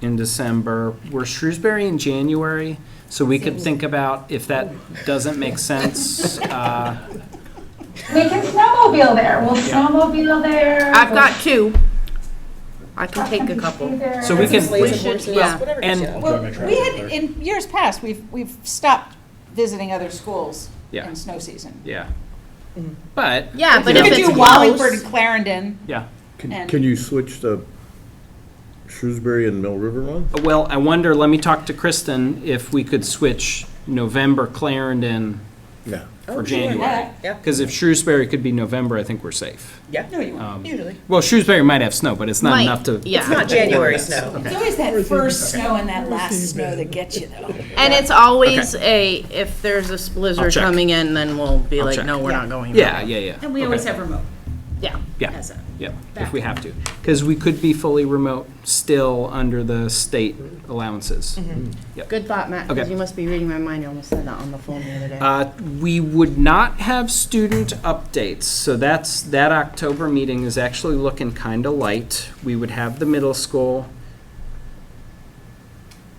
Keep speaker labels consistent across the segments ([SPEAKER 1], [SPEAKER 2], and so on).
[SPEAKER 1] in December. We're Shrewsbury in January, so we could think about if that doesn't make sense. uh,
[SPEAKER 2] We can snowmobile there. We'll
[SPEAKER 1] Yeah.
[SPEAKER 2] snowmobile there.
[SPEAKER 3] I've got two. I can take a couple.
[SPEAKER 1] So we can,
[SPEAKER 3] We should- yeah.
[SPEAKER 4] whatever.
[SPEAKER 1] and-
[SPEAKER 4] gets you out.
[SPEAKER 5] Well, we had, in years past, we've, we've stopped visiting other schools
[SPEAKER 1] Yeah.
[SPEAKER 5] in snow season.
[SPEAKER 1] yeah. But,
[SPEAKER 3] Yeah, but
[SPEAKER 5] You
[SPEAKER 3] if
[SPEAKER 5] could
[SPEAKER 3] it's
[SPEAKER 5] do Wallingford and
[SPEAKER 3] close,
[SPEAKER 5] Clarendon.
[SPEAKER 1] yeah.
[SPEAKER 5] And-
[SPEAKER 6] Can, can you switch the Shrewsbury and Mill River one?
[SPEAKER 1] Well, I wonder, let me talk to Kristen, if we could switch November Clarendon
[SPEAKER 6] Yeah.
[SPEAKER 1] for January.
[SPEAKER 4] Yeah,
[SPEAKER 1] Because if Shrewsbury could be November, I think we're safe.
[SPEAKER 4] yeah.
[SPEAKER 5] No, you won't.
[SPEAKER 1] Um,
[SPEAKER 4] Usually.
[SPEAKER 1] Well, Shrewsbury might have snow, but it's not
[SPEAKER 3] Might,
[SPEAKER 1] enough to.
[SPEAKER 3] yeah.
[SPEAKER 4] It's not January snow.
[SPEAKER 5] It's always that first snow and that last snow that gets you though.
[SPEAKER 3] and it's always a, if there's a blizzard
[SPEAKER 1] check.
[SPEAKER 3] coming in, then we'll be
[SPEAKER 1] I'll
[SPEAKER 3] like,
[SPEAKER 1] check.
[SPEAKER 3] no, we're not going.
[SPEAKER 1] Yeah, yeah, yeah.
[SPEAKER 5] And we always have remote.
[SPEAKER 3] Yeah.
[SPEAKER 1] Yeah,
[SPEAKER 5] as a
[SPEAKER 1] yeah, if we have to. Because we could be fully remote still under the state allowances.
[SPEAKER 3] Good thought, Matt, because
[SPEAKER 1] Okay.
[SPEAKER 3] you must be reading my mind. You almost said that on the phone the other day.
[SPEAKER 1] Uh, We would not have student updates, so that's, that October meeting is actually looking kind of light. We would have the middle school.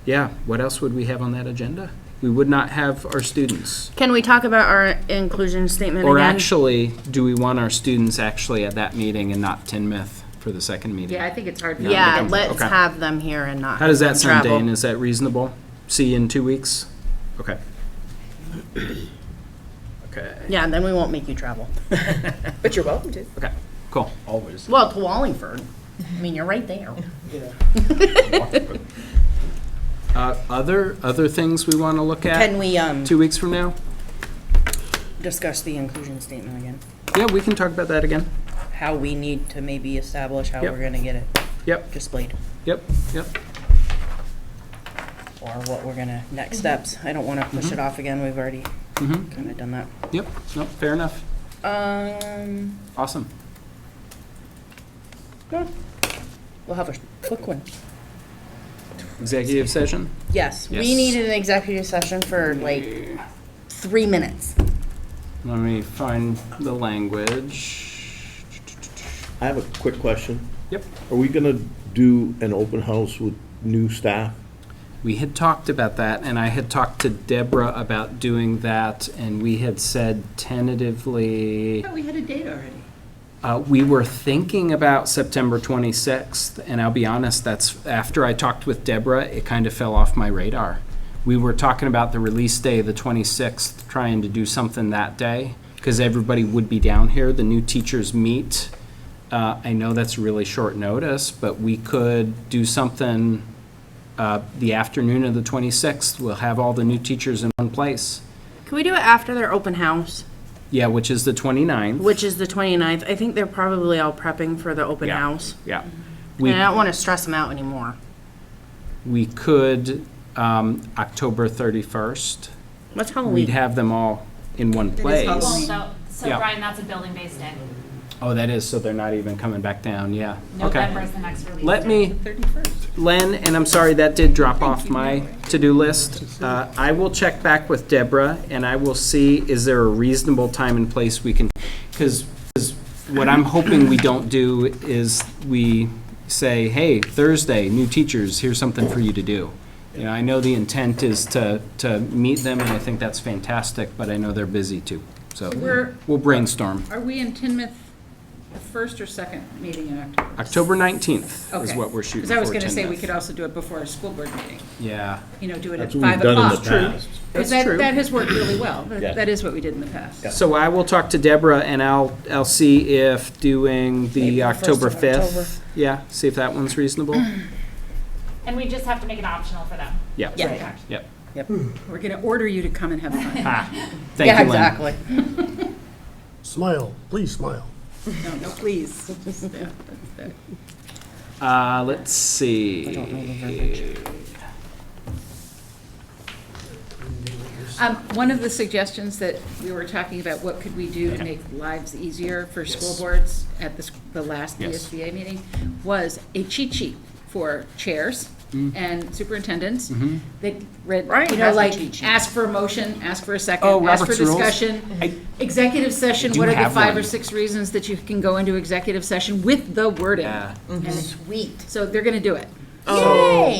[SPEAKER 1] Yeah, what else would we have on that agenda? We would not have our students.
[SPEAKER 3] Can we talk about our inclusion statement again?
[SPEAKER 1] Or actually, do we want our students actually at that meeting and not Tinmouth for the second meeting?
[SPEAKER 7] Yeah, I think it's hard. for them to
[SPEAKER 3] Yeah,
[SPEAKER 1] Okay.
[SPEAKER 3] let's
[SPEAKER 1] Okay.
[SPEAKER 3] have them here and not.
[SPEAKER 1] How does that
[SPEAKER 3] have them
[SPEAKER 1] sound,
[SPEAKER 3] travel.
[SPEAKER 1] Dane? Is that reasonable? See you in two weeks? Okay. Okay,
[SPEAKER 3] Yeah, then we won't make you travel.
[SPEAKER 4] But you're welcome to.
[SPEAKER 1] okay, cool.
[SPEAKER 8] Always.
[SPEAKER 3] Well, to Wallingford. I mean, you're right there.
[SPEAKER 1] Uh, Other, other things we want to look
[SPEAKER 3] Can
[SPEAKER 1] at
[SPEAKER 3] we, um,
[SPEAKER 1] two weeks from now?
[SPEAKER 3] discuss the inclusion statement again?
[SPEAKER 1] Yeah, we can talk about that again.
[SPEAKER 3] How we need to maybe establish how
[SPEAKER 1] Yep.
[SPEAKER 3] we're gonna get it
[SPEAKER 1] Yep,
[SPEAKER 3] displayed,
[SPEAKER 1] yep, yep.
[SPEAKER 3] or what we're gonna, next steps. I don't wanna push
[SPEAKER 1] Mm-hmm.
[SPEAKER 3] it off again, we've already
[SPEAKER 1] Mhm.
[SPEAKER 3] kinda done that.
[SPEAKER 1] Yep, no, fair enough.
[SPEAKER 3] Um,
[SPEAKER 1] Awesome.
[SPEAKER 3] we'll have a quick one.
[SPEAKER 1] Executive session?
[SPEAKER 3] Yes, we
[SPEAKER 1] Yes.
[SPEAKER 3] needed an executive session for like three minutes.
[SPEAKER 1] Let me find the language.
[SPEAKER 6] I have a quick question.
[SPEAKER 1] Yep.
[SPEAKER 6] Are we gonna do an open house with new staff?
[SPEAKER 1] We had talked about that, and I had talked to Deborah about doing that, and we had said tentatively.
[SPEAKER 5] we had a date already.
[SPEAKER 1] Uh, we were thinking about September 26th, and I'll be honest, that's after I talked with Deborah, it kind of fell off my radar. We were talking about the release day, the 26th, trying to do something that day, because everybody would be down here. The new teachers meet. Uh, I know that's really short notice, but we could do something uh, the afternoon of the 26th. We'll have all the new teachers in one place.
[SPEAKER 3] Can we do it after their open house,
[SPEAKER 1] Yeah, which is the 29th.
[SPEAKER 3] which is the 29th? I think they're probably all prepping for the open
[SPEAKER 1] Yeah.
[SPEAKER 3] house.
[SPEAKER 1] Yeah. We-
[SPEAKER 3] And I don't wanna stress them out anymore.
[SPEAKER 1] We could, um, October 31st,
[SPEAKER 3] What's
[SPEAKER 1] we'd
[SPEAKER 3] Halloween?
[SPEAKER 1] have them all in one
[SPEAKER 9] Well,
[SPEAKER 1] place.
[SPEAKER 9] so, so
[SPEAKER 1] Yeah.
[SPEAKER 9] Brian, that's a building-based day.
[SPEAKER 1] Oh, that is, so they're not even coming back down, yeah.
[SPEAKER 9] November
[SPEAKER 1] Okay.
[SPEAKER 9] is the next release.
[SPEAKER 1] Let
[SPEAKER 9] date.
[SPEAKER 1] me, Len, and I'm sorry, that did drop off my to-do list. Uh, I will check back with Deborah, and I will see, is there a reasonable time and place we can, because, what I'm hoping we don't do is we say, hey, Thursday, new teachers, here's something for you to do. You know, I know the intent is to, to meet them, and I think that's fantastic, but I know they're busy too. So
[SPEAKER 5] We're-
[SPEAKER 1] we'll brainstorm.
[SPEAKER 5] Are we in Tinmouth the first or second meeting in October?
[SPEAKER 1] October 19th is
[SPEAKER 5] Okay.
[SPEAKER 1] what we're shooting
[SPEAKER 5] Because
[SPEAKER 1] for.
[SPEAKER 5] I was going to say, we
[SPEAKER 1] Tinmouth.
[SPEAKER 5] could also do it before our school board meeting,
[SPEAKER 1] Yeah.
[SPEAKER 5] you know, do it at
[SPEAKER 6] That's what we've
[SPEAKER 5] five
[SPEAKER 6] done in
[SPEAKER 5] o'clock.
[SPEAKER 6] the past.
[SPEAKER 1] That's
[SPEAKER 5] Because that-
[SPEAKER 1] true.
[SPEAKER 5] That has worked really well.
[SPEAKER 6] Yeah.
[SPEAKER 5] That that is what we did in the past.
[SPEAKER 1] So I will talk to Deborah and I'll, I'll see if doing the October 5th. Yeah, see if that one's reasonable.
[SPEAKER 9] And we just have to make it optional for them.
[SPEAKER 1] Yeah.
[SPEAKER 3] Yeah.
[SPEAKER 1] Yep.
[SPEAKER 5] We're going to order you to come and have fun.
[SPEAKER 1] Thank you,
[SPEAKER 3] Yeah,
[SPEAKER 1] Lynn.
[SPEAKER 3] exactly.
[SPEAKER 8] Smile, please smile.
[SPEAKER 5] No, no, please. Yeah, that's-
[SPEAKER 1] Uh, let's see.
[SPEAKER 5] Um, One of the suggestions that we were talking about, what could we do to make lives easier for school boards at the, s- the last
[SPEAKER 1] Yes.
[SPEAKER 5] ESBA meeting, was a cheat sheet for chairs
[SPEAKER 1] Mm-hmm.
[SPEAKER 5] and superintendents that read,
[SPEAKER 3] Right,
[SPEAKER 5] you know,
[SPEAKER 3] has a cheat
[SPEAKER 5] like,
[SPEAKER 3] sheet.
[SPEAKER 5] ask for a motion, ask for a
[SPEAKER 1] Oh,
[SPEAKER 5] second, ask for
[SPEAKER 1] Robert's rules. I-
[SPEAKER 5] discussion. Executive session,
[SPEAKER 1] do
[SPEAKER 5] what are the
[SPEAKER 1] have
[SPEAKER 5] five or
[SPEAKER 1] one.
[SPEAKER 5] six reasons that you can go into executive session with the wording?
[SPEAKER 1] Yeah.
[SPEAKER 5] Sweet. So they're gonna do it.
[SPEAKER 3] Yay!